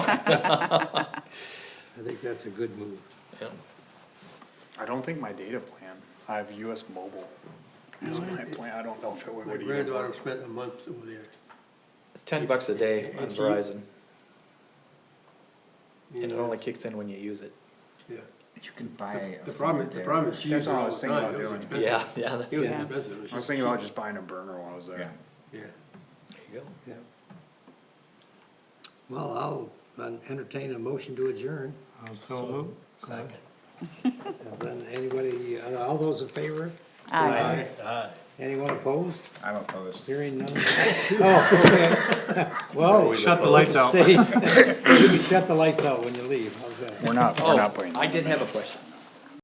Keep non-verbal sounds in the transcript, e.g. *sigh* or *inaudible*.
I think that's a good move. Yeah. I don't think my data plan, I have US Mobile as my plan, I don't know if it would My even work. granddaughter spent a month over there. It's ten bucks a day on It's- Verizon, You and it know, only kicks in when you use it. Yeah. You can buy. a The problem, phone the there. problem is she used That's it what I all was the thinking time, about it was doing. expensive. Yeah, yeah, that's, It was there Yeah. expensive, it was I was just thinking about cheap. just buying a burner while I was Yeah. there. Yeah, you go. yeah. Well, I'll entertain a motion to adjourn. So moved. Second. And then anybody, uh, all those in favor? Aye. Anyone opposed? I'm opposed. Hearing none? Oh, okay. *laughs* Well. Shut the lights *laughs* out. You can shut the lights out when you leave. How's that? We're not, we're not Oh, playing. I did have a question.